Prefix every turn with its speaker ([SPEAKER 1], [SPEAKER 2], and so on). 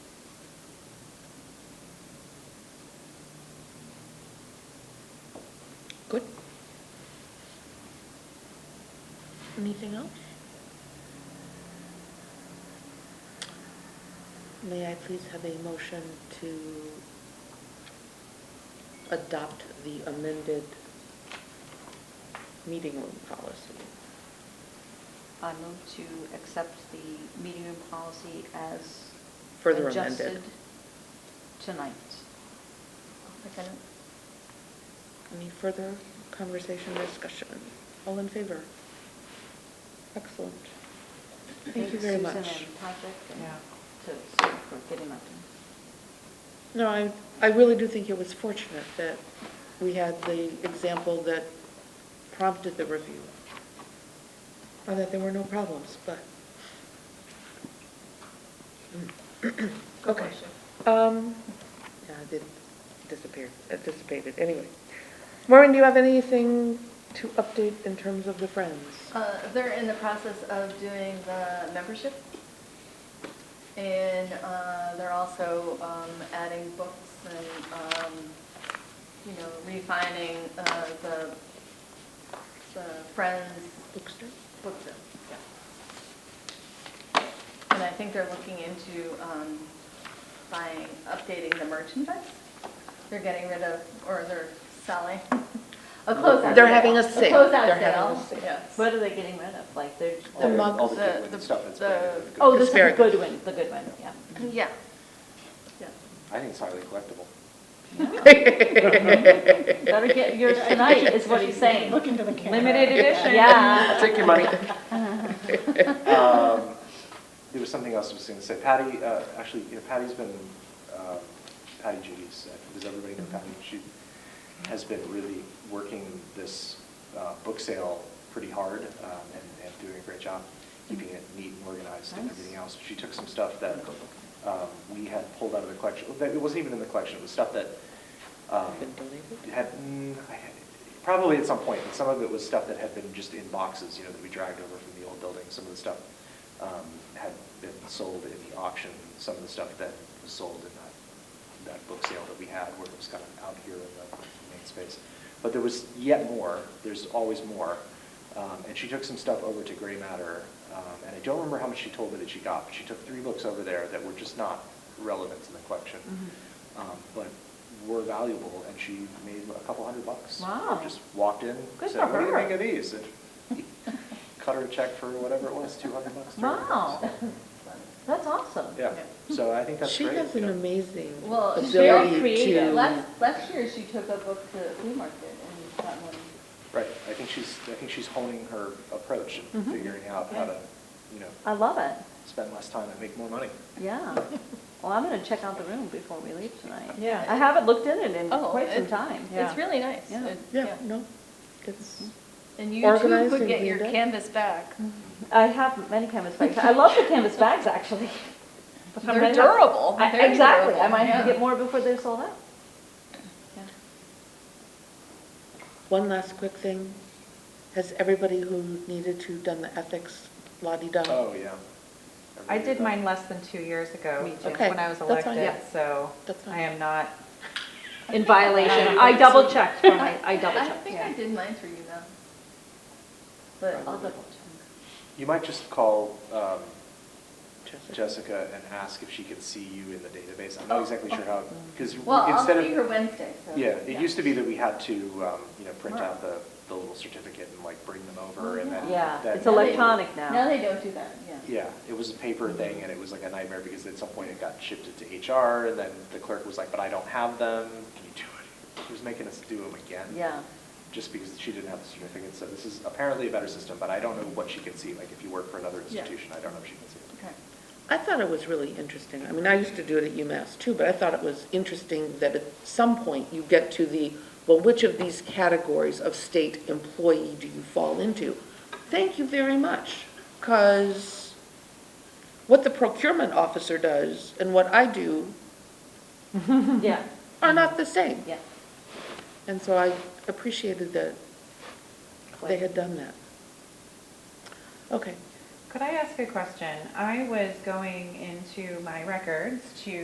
[SPEAKER 1] Anything else? May I please have a motion to adopt the amended meeting room policy?
[SPEAKER 2] I move to accept the meeting room policy as.
[SPEAKER 1] Further amended.
[SPEAKER 2] adjusted Tonight.
[SPEAKER 1] Any further conversation, or discussion? All in favor? Excellent. Thank you very much.
[SPEAKER 2] Susan and Patrick and
[SPEAKER 3] Yeah.
[SPEAKER 2] to Sue for getting up.
[SPEAKER 1] No, I, I really do think it was fortunate that we had the example that prompted the review. Or that there were no problems, but. Okay. Um, yeah, it did disappear, it dissipated, anyway. Maureen, do you have anything to update in terms of the Friends?
[SPEAKER 4] Uh, They're in the process of doing the membership, and uh, they're also um, adding books and, um, you know, refining uh, the, the Friends
[SPEAKER 1] Bookstore?
[SPEAKER 4] book sale. yeah. And I think they're looking into um, buying, updating the merchandise. They're getting rid of, or they're selling,
[SPEAKER 5] Mm-hmm.
[SPEAKER 4] a closeout sale.
[SPEAKER 1] They're having a sale. They're
[SPEAKER 4] closeout
[SPEAKER 1] having a
[SPEAKER 4] sale,
[SPEAKER 1] sale.
[SPEAKER 4] yes.
[SPEAKER 2] What are they getting rid of? Like, they're.
[SPEAKER 1] The
[SPEAKER 2] they're-
[SPEAKER 1] mug-
[SPEAKER 5] All the
[SPEAKER 4] the-
[SPEAKER 5] Goodwin
[SPEAKER 4] the-
[SPEAKER 5] stuff that's
[SPEAKER 4] the-
[SPEAKER 5] branded. with
[SPEAKER 2] Oh,
[SPEAKER 5] Goodwin.
[SPEAKER 2] this is the
[SPEAKER 1] Asparagus.
[SPEAKER 2] good one, the good one, yeah.
[SPEAKER 4] Yeah, yeah.
[SPEAKER 5] I think it's highly collectible. Um,
[SPEAKER 2] Better get yours tonight, is what he's saying.
[SPEAKER 3] Look into the camera.
[SPEAKER 2] Limited edition. Yeah.
[SPEAKER 5] I'll take your money. Um, There was something else I was going to say. Patty, uh, actually, you know, Patty's been, uh, Patty Judy's, uh, does everybody know Patty? She has been really working this uh, book sale pretty hard um, and and doing a great job, keeping it neat and organized and
[SPEAKER 2] Nice.
[SPEAKER 5] everything else. She took some stuff that um, we had pulled out of the collection, that- it wasn't even in the collection, it was stuff that um,
[SPEAKER 1] Been donated?
[SPEAKER 5] had, mm, I had- probably at some point, but some of it was stuff that had been just in boxes, you know, that we dragged over from the old building. Some of the stuff um, had been sold in the auction, some of the stuff that was sold in that, that book sale that we had, where it was kind of out here in the main space. But there was yet more, there's always more. Um, And she took some stuff over to Gray Matter, um, and I don't remember how much she told me that she got, but she took three books over there that were just not relevant to the collection
[SPEAKER 2] Mm-hmm.
[SPEAKER 5] um, but were valuable, and she made a couple hundred bucks.
[SPEAKER 2] Wow.
[SPEAKER 5] Just walked in,
[SPEAKER 2] Good
[SPEAKER 5] said,
[SPEAKER 2] for
[SPEAKER 5] what do you
[SPEAKER 2] her."
[SPEAKER 5] think of these? And Cut her a check for whatever it was, two hundred bucks. 300
[SPEAKER 2] Wow,
[SPEAKER 5] bucks.
[SPEAKER 2] that's awesome.
[SPEAKER 5] Yeah, so I think that's
[SPEAKER 1] She
[SPEAKER 5] great.
[SPEAKER 1] has an
[SPEAKER 5] yeah.
[SPEAKER 1] amazing
[SPEAKER 4] Well,
[SPEAKER 1] ability
[SPEAKER 4] she's
[SPEAKER 1] to.
[SPEAKER 4] very
[SPEAKER 2] creative.
[SPEAKER 4] Last, last year, she took a book to the flea market and got one.
[SPEAKER 5] Right, I think she's, I think she's honing her approach and
[SPEAKER 2] Mhm.
[SPEAKER 5] figuring out how to, you know,
[SPEAKER 2] I love it,
[SPEAKER 5] spend less time and make more money.
[SPEAKER 2] yeah. Well, I'm gonna check out the room before we leave tonight.
[SPEAKER 3] Yeah.
[SPEAKER 2] I haven't looked in it in
[SPEAKER 4] Oh,
[SPEAKER 2] quite some
[SPEAKER 4] it-
[SPEAKER 2] time, yeah.
[SPEAKER 4] It's really nice.
[SPEAKER 2] Yeah.
[SPEAKER 4] It-
[SPEAKER 1] Yeah, no, it's,
[SPEAKER 4] And you too
[SPEAKER 1] Organized
[SPEAKER 4] could
[SPEAKER 1] and
[SPEAKER 4] get your
[SPEAKER 1] cleaned up.
[SPEAKER 4] canvas back.
[SPEAKER 2] I have many canvas bags. I love the canvas bags, actually. But I
[SPEAKER 4] They're
[SPEAKER 2] might have-
[SPEAKER 4] durable.
[SPEAKER 2] I-
[SPEAKER 4] They're
[SPEAKER 2] Exactly, I
[SPEAKER 4] durable,
[SPEAKER 2] might have to
[SPEAKER 4] yeah.
[SPEAKER 2] get more before they're sold out.
[SPEAKER 1] one last quick thing. Has everybody who needed to done the ethics la-di-da?
[SPEAKER 5] Oh, yeah.
[SPEAKER 3] I
[SPEAKER 5] Everybody
[SPEAKER 3] did mine less than two years ago,
[SPEAKER 2] Me too.
[SPEAKER 1] Okay,
[SPEAKER 3] when I was
[SPEAKER 1] that's fine.
[SPEAKER 3] elected,
[SPEAKER 1] Yeah.
[SPEAKER 3] so
[SPEAKER 1] That's fine.
[SPEAKER 3] I am not,
[SPEAKER 2] In violation, I double checked, I I double
[SPEAKER 4] I
[SPEAKER 2] checked.
[SPEAKER 4] think I did mine through you though.
[SPEAKER 2] I'll
[SPEAKER 4] But
[SPEAKER 2] double check.
[SPEAKER 5] You might just call, um,
[SPEAKER 1] Jessica.
[SPEAKER 5] Jessica and ask if she can see you in the database. I'm not
[SPEAKER 4] Oh,
[SPEAKER 5] exactly sure how, because
[SPEAKER 4] Well, I'll
[SPEAKER 5] instead
[SPEAKER 4] see her
[SPEAKER 5] of,
[SPEAKER 4] Wednesday, so.
[SPEAKER 5] yeah, it used to be that we had to, um, you know, print
[SPEAKER 4] Right.
[SPEAKER 5] out the, the little certificate and like bring them over and then.
[SPEAKER 2] Mm-hmm. Yeah,
[SPEAKER 5] then-
[SPEAKER 2] it's electronic
[SPEAKER 4] Now
[SPEAKER 2] now.
[SPEAKER 4] they don't do that, yeah.
[SPEAKER 5] Yeah, it was a paper thing and it was like a nightmare because at some point it got shifted to HR and then the clerk was like, but I don't have them. Can you do it? She was making us do them again.
[SPEAKER 2] Yeah,
[SPEAKER 5] Just because she didn't have the certificate. So this is apparently a better system, but I don't know what she can see. Like if you work for another
[SPEAKER 4] Yeah.
[SPEAKER 5] institution, I don't know if she can see it.
[SPEAKER 4] Okay.
[SPEAKER 1] I thought it was really interesting. I mean, I used to do it at UMass too, but I thought it was interesting that at some point you get to the, well, which of these categories of state employee do you fall into? Thank you very much, because what the procurement officer does and what I do
[SPEAKER 2] yeah,
[SPEAKER 1] are not the same.
[SPEAKER 2] yeah.
[SPEAKER 1] And so I appreciated that they had done that. Okay.
[SPEAKER 3] could I ask a question? I was going into my records to